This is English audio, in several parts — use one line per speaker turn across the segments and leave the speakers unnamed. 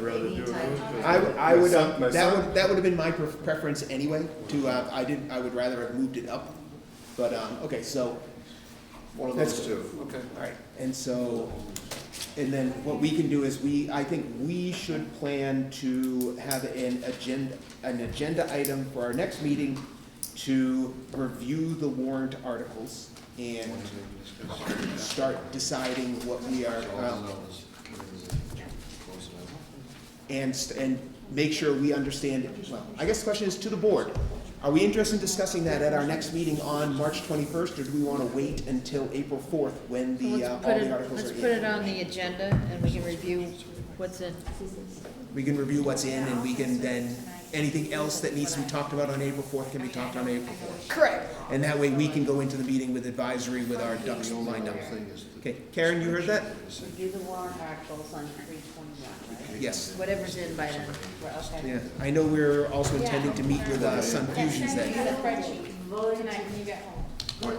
rather do it with-
I, I would,
My son-
um,
my
that
son-
would, that would have been my pref- preference anyway, to, uh, I did, I would rather have moved it up, but, um, okay, so, one of those
That's
two.
two.
Okay.
All right, and so, and then what we can do is we, I think we should plan to have an agenda, an agenda item for our next meeting to review the warrant articles and start deciding what we are, um, and, st- and make sure we understand, well, I guess the question is to the board. Are we interested in discussing that at our next meeting on March twenty-first, or do we wanna wait until April fourth when the, uh,
Let's put
all the
it,
articles are in?
let's put it on the agenda and we can review what's in.
We can review what's in and we can then, anything else that needs to be talked about on April fourth can be talked on April fourth.
Correct.
And that way we can go into the meeting with advisory with our ducks lined up. Okay, Karen, you heard that?
Review the warrant articles on three twenty-one, right?
Yes,
Whatever's in by then.
We're okay.
yeah. I know we're also intending to meet with, uh, Sun Fusions then.
spreadsheet tonight when you get home.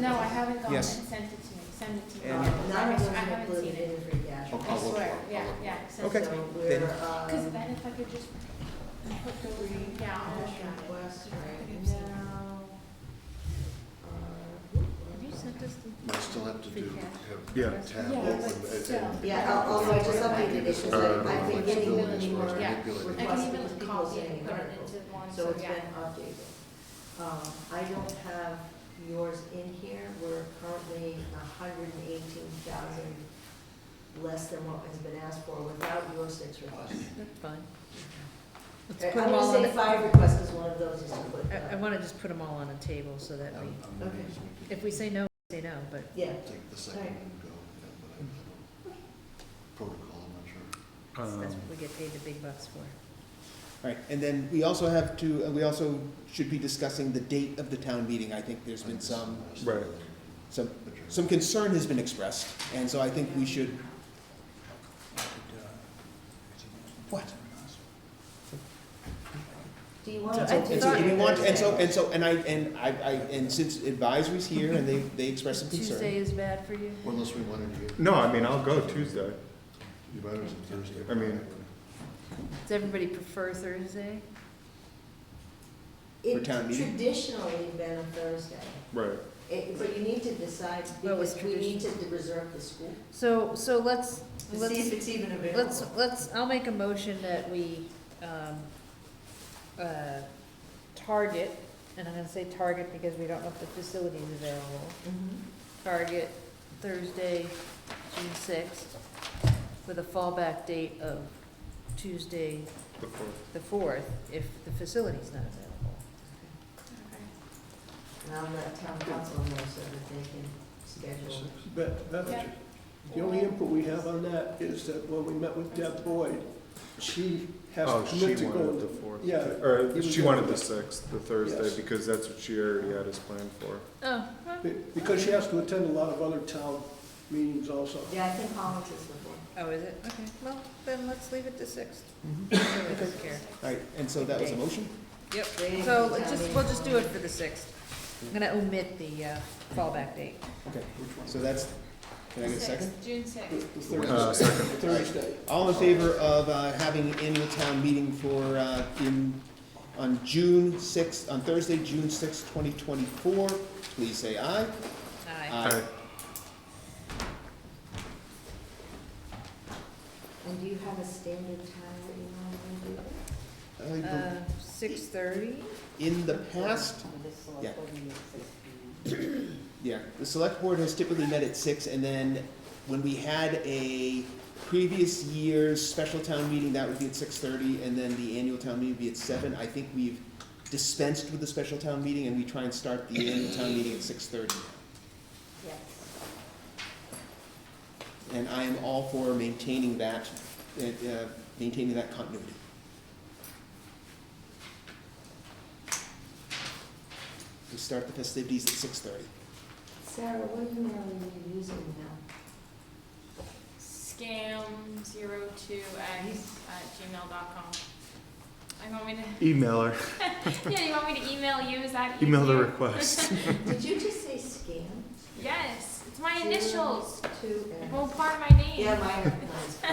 No, I haven't gone and
Yes.
sent it to me, send it to me.
And-
I haven't seen it. I
I'll look
swear,
for it.
yeah,
I'll look
yeah, send
Okay.
it to me.
So we're,
Then-
um,
Because then if I could just put those down.
National
No.
Quest, right?
Have you sent us the?
I still have to do,
Yeah.
have tab
Yeah,
open.
but
and-
still.
and-
Yeah, I'll- also I just updated it, because I've been getting
Uh,
many more
Yeah,
manipulated.
I can
requests from
even
people
copy it
saying
and put it
articles.
into one,
So
so
it's been
yeah.
updated. Um, I don't have yours in here, we're currently hundred and eighteen thousand less than what has been asked for without your six requests.
That's fine. Let's
I'm
put them all
gonna
on,
Uh, say
the-
five requests is one of those, is to put,
I, I
uh,
wanna just put them all on a table so that we,
Okay.
if we say no, we say no, but
yeah.
Take the second and go, yeah, but I don't know. protocol, I'm not sure.
Um,
um,
that's what we get paid the big bucks for.
Right, and then we also have to, uh, we also should be discussing the date of the town meeting. I think there's been some,
Right.
some, some concern has been expressed, and so I think we should. What?
Do you want
So
to?
I
And so, do we want, and so, and so, and I, and I, I, and since advisory's here and they, they expressed some
Tuesday
concern.
is bad for you?
Or Unless we wanted to get,
No, I mean, I'll go Tuesday.
you might have some Thursday.
I mean-
Does everybody prefer Thursday?
for town meeting?
Traditionally been a Thursday,
Right.
It- but you need to decide,
Well, it's
because we need to reserve the school,
So, so let's,
to see if
let's,
it's even available.
let's, let's, I'll make a motion that we, um, uh, target, and I'm gonna say target because we don't know if the facility is available.
Mhm.
target Thursday, June sixth, with a fallback date of Tuesday,
The fourth.
the fourth, if the facility's not available.
And I'll let town council know so that they can schedule.
But
Yeah.
that, the only input we have on that is that when we met with Deb Boyd, she has
Oh,
to
she
commit to
wanted the
go.
fourth.
Yeah.
Or she wanted the
Yes.
sixth, the Thursday, because that's what she already had us planned for.
Oh,
be- Because she has to attend a lot of other town meetings also.
Yeah, I think Hollins is the one.
oh, is it? Okay, well, then let's leave it to sixth. Really doesn't care.
All right, and so that was a motion?
Yep,
Waiting for
so
town
let's just,
meeting.
we'll just do it for the sixth. I'm gonna omit the, uh, fallback date.
Okay, so that's, can I get a second?
Sixth, June
The
sixth.
the
Uh,
Thursday,
second.
the Thursday.
All in favor of uh, having an annual town meeting for, uh, in, on June sixth, on Thursday, June sixth, twenty twenty-four, please say aye.
Aye.
Aye.
And do you have a standard time that you want to
I
do?
Uh,
bel-
six thirty?
In the past, yeah. yeah, the select board has typically met at six, and then when we had a previous year's special town meeting, that would be at six thirty, and then the annual town meeting would be at seven. I think we've dispensed with the special town meeting, and we try and start the annual town meeting at six thirty.
Yes.
And I am all for maintaining that, uh, uh, maintaining that continuity. We start the festivities at six thirty.
Sarah, what email are you using now?
Scam zero two x at gmail dot com. I want me to,
Email her,
yeah, you want me to email you, is that easier?
email the request.
Did you just say scam?
Yes, it's my initials.
Two and,
Well, part of my name.
yeah, mine are, mine's